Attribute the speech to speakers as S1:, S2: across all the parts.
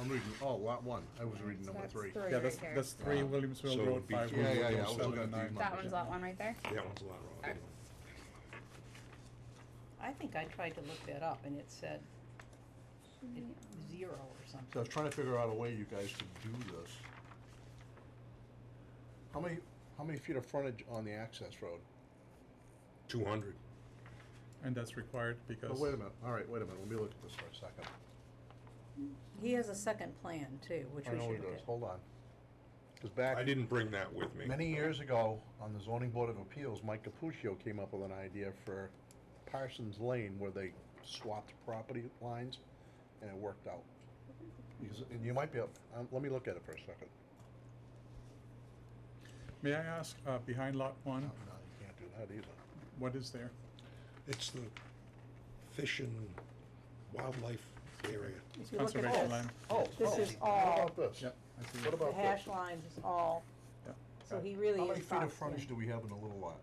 S1: I'm reading, oh, lot one, I was reading number
S2: that's
S1: three.
S2: three
S3: Yeah,
S2: right
S3: that's,
S2: there.
S3: that's three
S4: Wow. So
S3: Williamsville
S4: it'd
S3: Road,
S4: be
S3: five
S4: two.
S1: Yeah, yeah, yeah, I
S3: Williamsville,
S1: was
S3: seven
S1: looking
S3: and
S1: at these
S3: nine.
S2: That one's lot one right there?
S4: That one's a lot wrong.
S5: I think I tried to look that up and it said it- zero or
S1: So I
S5: something.
S1: was trying to figure out a way you guys could do this. How many, how many feet of frontage on the access road?
S4: Two hundred.
S3: And that's required
S1: Oh,
S3: because.
S1: wait a minute, all right, wait a minute, let me look at this for a second.
S5: He has a second plan too, which
S1: I
S5: we
S1: know
S5: should
S1: he
S5: look
S1: does.
S5: at.
S1: Hold on. Because back.
S4: I didn't bring that with me.
S1: Many years ago, on the zoning board of appeals, Mike Capuccio came up with an idea for Parsons Lane where they swapped property lines and it worked out. Because, and you might be, able- um, let me look at it for a second.
S3: May I ask, uh, behind lot
S1: No,
S3: one,
S1: no, you can't do that either.
S3: what is there?
S4: It's the fish and wildlife area.
S5: If you look at
S3: Conservation
S5: this,
S3: land.
S1: Oh,
S5: This
S1: oh,
S5: is
S1: What
S5: all-
S1: about this?
S3: Yep, I see
S1: What
S3: it.
S5: The
S1: about
S5: hash
S1: this?
S5: lines is all,
S3: Yeah,
S5: so
S3: got it.
S5: he really
S1: How
S5: is.
S1: many feet of
S5: boxed
S1: frontage
S5: in.
S1: do we have in a little lot?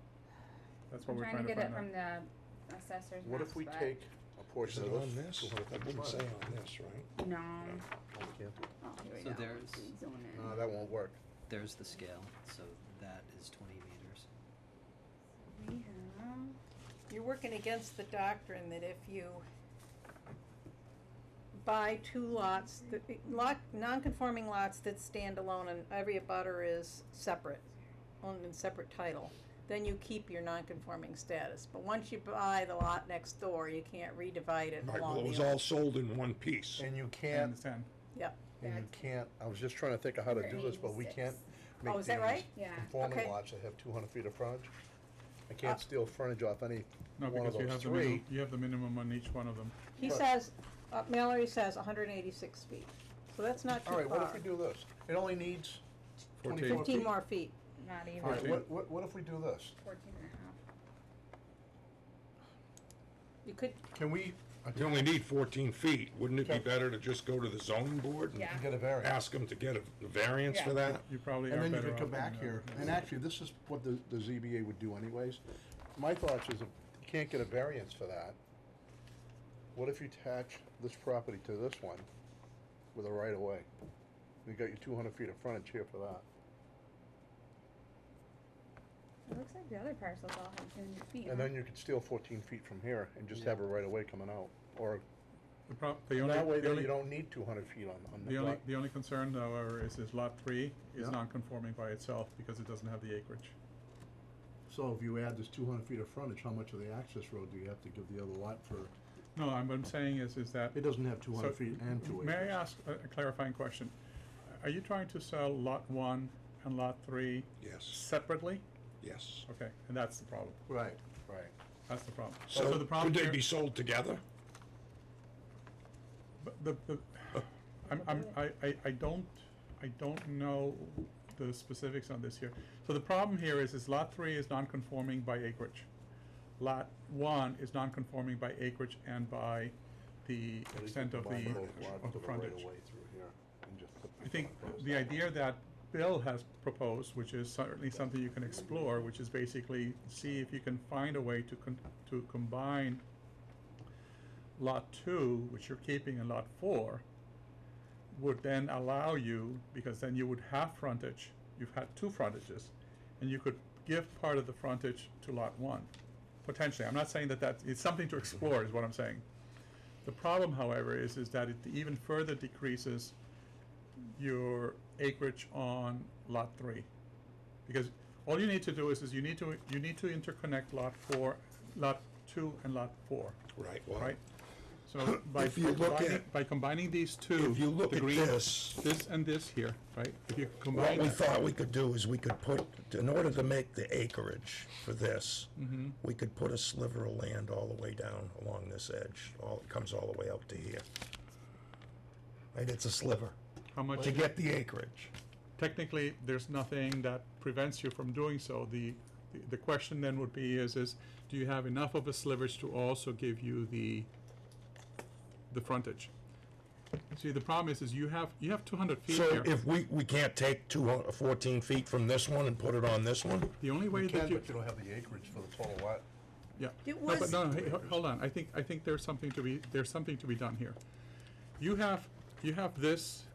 S3: That's what
S2: I'm
S3: we're
S2: trying to get it
S3: find
S2: from
S3: out.
S2: the assessor's
S1: What
S2: maps,
S1: if we
S2: but
S1: take a
S4: Is
S1: portion
S4: it
S1: of
S4: on
S1: this?
S4: this? It wouldn't say on this, right?
S2: No.
S1: Oh, we can't do it.
S2: Oh, here we
S6: So
S2: go.
S6: there's-
S2: Zone in.
S1: No, Uh, that won't work.
S6: There's the scale, so that is twenty meters.
S2: We have.
S5: You're working against the doctrine that if you buy two lots, that, lot, non-conforming lots that stand alone and every abutter is separate, owned in separate title, then you keep your non-conforming status. But once you buy the lot next door, you can't redivide it
S4: Right, well,
S5: along
S4: it was
S5: the.
S4: all sold in one piece.
S1: And you
S3: I
S1: can't,
S3: understand.
S5: Yep,
S1: and you
S2: That's-
S1: can't, I was just trying to think of how to do this, but we
S2: 186.
S1: can't
S5: Oh,
S1: make
S5: is that
S1: these
S5: right?
S2: Yeah.
S1: Conforming
S5: Okay.
S1: lots that have two hundred feet of frontage. I
S5: Uh,
S1: can't steal frontage off any
S3: No,
S1: one of
S3: because you
S1: those
S3: have the minimum,
S1: three.
S3: you have the minimum on each one of them.
S5: he
S1: Right.
S5: says, uh, Mallory says hundred and eighty-six feet, so that's not too far.
S1: Alright, what if we do this? It only needs twenty-four feet.
S5: Fifteen more feet,
S2: Not even.
S1: Alright,
S3: Fourteen.
S1: what, what, what if we do this?
S2: 14 and a half.
S5: you could,
S1: Can we, I
S4: You only need fourteen feet. Wouldn't it be
S1: Okay.
S4: better to just go to the zoning board? and
S2: Yeah.
S1: get a variance?
S4: Ask them to get a a variance for that?
S3: You probably are
S1: And
S3: better
S1: then
S3: off.
S1: you could come
S3: than
S1: back
S3: the
S1: here,
S3: other
S1: and
S3: ones.
S1: actually, this is what the, the ZBA would do anyways. My thoughts is, if you can't get a variance for that, what if you attach this property to this one with a right of way? You got your two hundred feet of frontage here for that.
S2: It looks like the other parcels all have 200 feet.
S1: And
S2: huh?
S1: then you could steal fourteen feet from here and just have a right of way coming out, or,
S3: The prob, the only,
S1: that way
S3: the
S1: then
S3: only,
S1: you don't need two hundred feet on, on
S3: the
S1: the
S3: only,
S1: lot.
S3: the only concern however is, is lot three is
S1: Yeah.
S3: non-conforming by itself because it doesn't have the acreage.
S1: So if you add this two hundred feet of frontage, how much of the access road do you have to give the other lot for,
S3: No, I'm, what I'm saying is, is that.
S1: it doesn't have two
S3: so,
S1: hundred feet and two acres.
S3: May I ask a a clarifying question? Are you trying to sell lot one and lot three
S4: Yes,
S3: separately?
S4: yes.
S3: Okay, and that's the problem.
S1: Right, right.
S3: That's the problem.
S4: So
S3: the problem
S4: could they
S3: here-
S4: be sold together?
S3: But the, the, I'm, I'm, I, I, I don't, I don't know the specifics on this here. So the problem here is, is lot three is non-conforming by acreage. Lot one is non-conforming by acreage and by the
S1: But you
S3: extent
S1: could
S3: of the,
S1: combine both lots
S3: of
S1: to
S3: the
S1: the right
S3: frontage.
S1: of way through here and just put
S3: I
S1: this
S3: think
S1: one across
S3: the
S1: that
S3: idea
S1: one.
S3: that Bill has proposed, which is certainly something you can explore, which is basically see if you can find a way to con- to combine lot two, which you're keeping in lot four, would then allow you, because then you would have frontage, you've had two frontages, and you could give part of the frontage to lot one, potentially. I'm not saying that that's, it's something to explore is what I'm saying. The problem, however, is, is that it even further decreases your acreage on lot three. Because all you need to do is, is you need to, you need to interconnect lot four, lot two and lot four,
S4: Right, well,
S3: right? So by
S4: If you look
S3: combining,
S4: at-
S3: by combining these two.
S4: if you look
S3: the
S4: at
S3: green-
S4: this,
S3: This and this here, right? If you
S4: What
S3: combine
S4: we
S3: that-
S4: thought we could do is we could put, in order to make the acreage for this,
S3: Mm-hmm.
S4: we could put a sliver of land all the way down along this edge, all, it comes all the way out to here. Right, it's a sliver,
S3: how much,
S4: to get the acreage.
S3: technically, there's nothing that prevents you from doing so. The, the- the question then would be is, is do you have enough of a slivers to also give you the, the frontage? See, the problem is, is you have, you have two hundred feet
S4: So
S3: here.
S4: if we, we can't take two hun- fourteen feet from this one and put it on this one?
S3: The only way
S1: You
S3: that
S1: can,
S3: you,
S1: but you don't have the acreage for the total lot.
S3: yeah.
S5: It
S3: No, but
S5: was-
S3: No, no, hey, ho- hold on, I think, I think there's something to be, there's something to be done here. You have, you have this